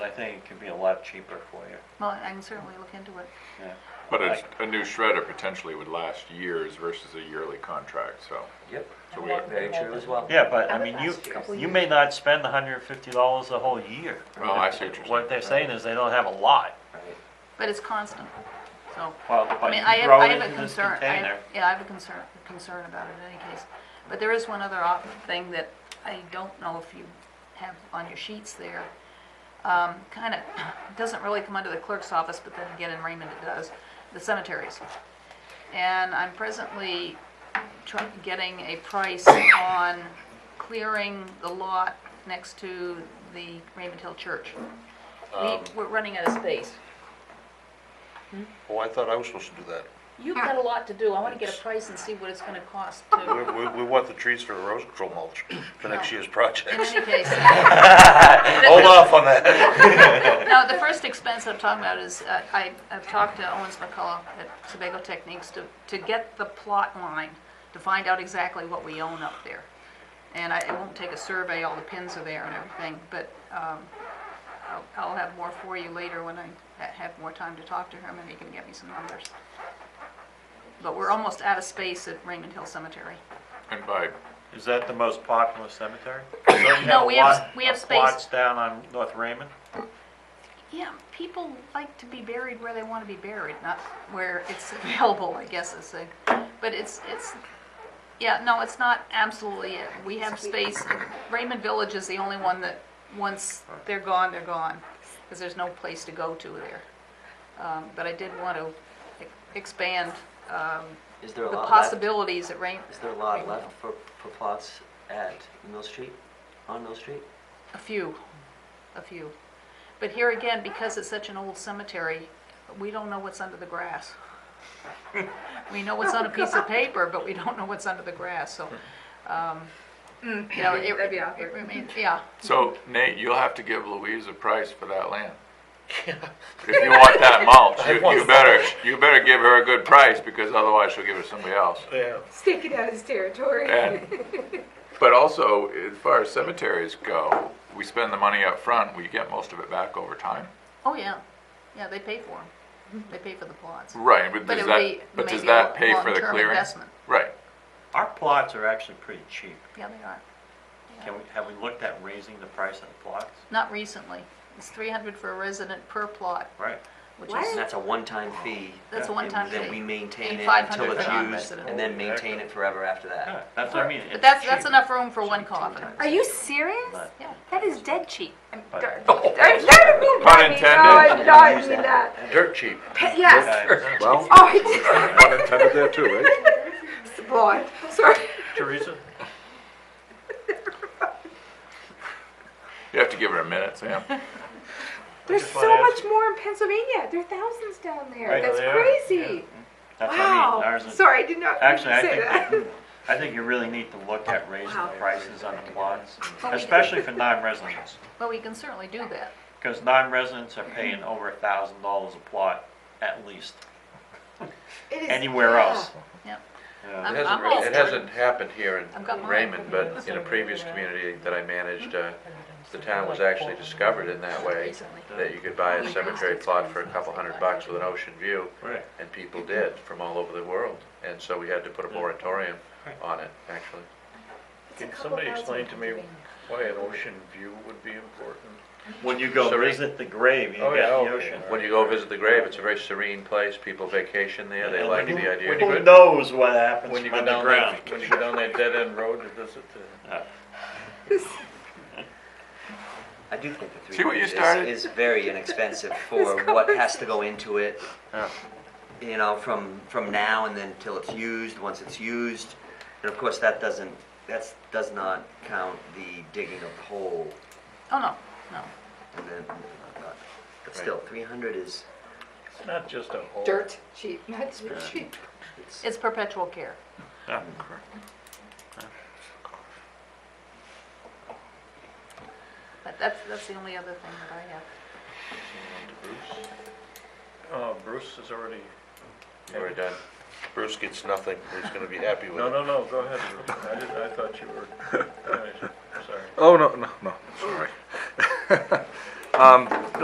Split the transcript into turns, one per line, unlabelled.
I think it can be a lot cheaper for you.
Well, I can certainly look into it.
Yeah.
But a,
Like-
a new shredder potentially would last years versus a yearly contract, so.
Yep,
So we-
very true as well.
Yeah, but
How
I
about
mean, you,
last year's?
you may not spend hundred and fifty dollars a whole year.
Well, I see what you're
What they're saying is they don't have a lot.
Right.
But it's constant, so.
Well,
I
but
mean,
you
I have,
throw
I
it
have a
into this
concern, I
container.
have, yeah, I have a concern, concern about it in any case. But there is one other op, thing that I don't know if you have on your sheets there. Um, kinda, doesn't really come under the clerk's office, but then again in Raymond it does, the cemeteries. And I'm presently try, getting a price on clearing the lot next to the Raymond Hill Church. We,
Um.
we're running out of space.
Oh, I thought I was supposed to do that.
You've got a lot to do. I want to get a price and see what it's going to cost to,
We, we, we want the trees for the rose control mulch for next year's project.
in any case.
Hold off on that.
No, the first expense I'm talking about is, uh, I, I've talked to Owens McCullough at Sebago Techniques to, to get the plot line, to find out exactly what we own up there. And I, it won't take a survey, all the pins are there and everything, but, um, I'll, I'll have more for you later when I ha- have more time to talk to him and he can get me some numbers. But we're almost out of space at Raymond Hill Cemetery.
And by,
Is that the most popular cemetery? Don't you
No, we have-
a lot
we have
of
space.
Plots down on North Raymond?
Yeah, people like to be buried where they want to be buried, not where it's available, I guess is a, but it's, it's, yeah, no, it's not absolutely it. We have space, Raymond Village is the only one that, once they're gone, they're gone, because there's no place to go to there. Um, but I did want to e- expand, um,
Is there
the
a lot left?
possibilities at Raymond.
Is there a lot left for, for plots at Mill Street, on Mill Street?
A few, a few. But here again, because it's such an old cemetery, we don't know what's under the grass. We know what's on a piece of paper, but we don't know what's under the grass, so, um, you know, it,
that'd be
it
awkward.
remains, yeah.
so Nate, you'll have to give Louise a price for that land. If you want that mulch, you, you better, you better give her a good price because otherwise she'll give it to somebody else.
Yeah.
Sticking out his territory.
And, but also, as far as cemeteries go, we spend the money up front, we get most of it back over time.
Oh, yeah, yeah, they pay for them, they pay for the plots.
Right, but
But
does
it would be
that, but does
maybe a
that pay for the
long-term
clearing?
investment.
Right,
Our plots are actually pretty cheap.
Yeah, they are.
Can we, have we looked at raising the price of the plots?
Not recently. It's three hundred for a resident per plot,
Right.
which
And
is,
What?
that's a one-time fee.
that's a
Yeah,
one-time
And then we
fee.
maintain
And
it
500
until it's
for
used,
non-resident.
and then maintain it forever after
Yeah,
that.
that's what I mean.
But
it's
that's, that's
cheap.
enough room for one coffin.
times.
Are you serious?
But-
Yeah.
That is dead cheap. I mean,
But-
dar- dar- I didn't mean
Pun
that. I mean,
intended.
No, I did not
Use
mean
that.
that.
Dirt cheap.
Pe- Yes.
Okay.
Well,
Oh, I did.
pun intended there too, right?
It's a boy. Sorry.
Teresa?
you have to give her a minute, Sam.
There's
just
so
wanna ask-
much more in Pennsylvania. There are thousands down there.
Right,
That's
there.
crazy.
That's what I mean.
Wow.
Ours is-
Sorry, I did not mean to
Actually, I
say
think,
that.
that- I think you really need to look at raising the
Wow. Oh,
prices on the plots,
Well, we did-
especially for non-residents.
Well, we can certainly do that.
Because non-residents are paying over a thousand dollars a plot at least,
It is-
anywhere
yeah.
else.
Yeah.
you know.
It
I'm-
hasn't,
I'm
really-
all
it
for it.
hasn't happened here
I've got
in
mine.
Raymond, but in a previous community that I managed, uh, the town was actually discovered in that way.
Recently.
That you could buy a cemetery plot for a couple hundred bucks with an ocean view.
Right.
And people did from all over the world. And so we had to put a moratorium on it, actually.
It's a couple thousand Pennsylvania.
why an ocean view would be important?
When you go
Sorry.
visit the grave, you
Oh,
got
yeah,
the
okay,
ocean.
When you go visit the grave, it's a very serene place, people vacation there, they
And
like
who-
the idea.
when you
Who
go-
knows what happens
When you
from
go down
underground?
that, when you go down that dead end road to visit the.
I do think the three
See what you
years
started?
is, is very inexpensive for what has to go into it.
Yeah.
You know, from, from now and then till it's used, once it's used. And of course, that doesn't, that's, does not count the digging of the hole
Oh, no, no.
and then, uh, but still, three hundred is,
It's not just a hole.
Dirt cheap, not dirt cheap.
it's,
It's perpetual care.
Yeah.
But that's, that's the only other thing that I have.
Uh, Bruce is already,
We're done. Bruce gets nothing, he's gonna be happy with it.
no, no, no, go ahead, Bruce. I didn't, I thought you were, finished. sorry.
Oh, no, no, no, sorry. Um,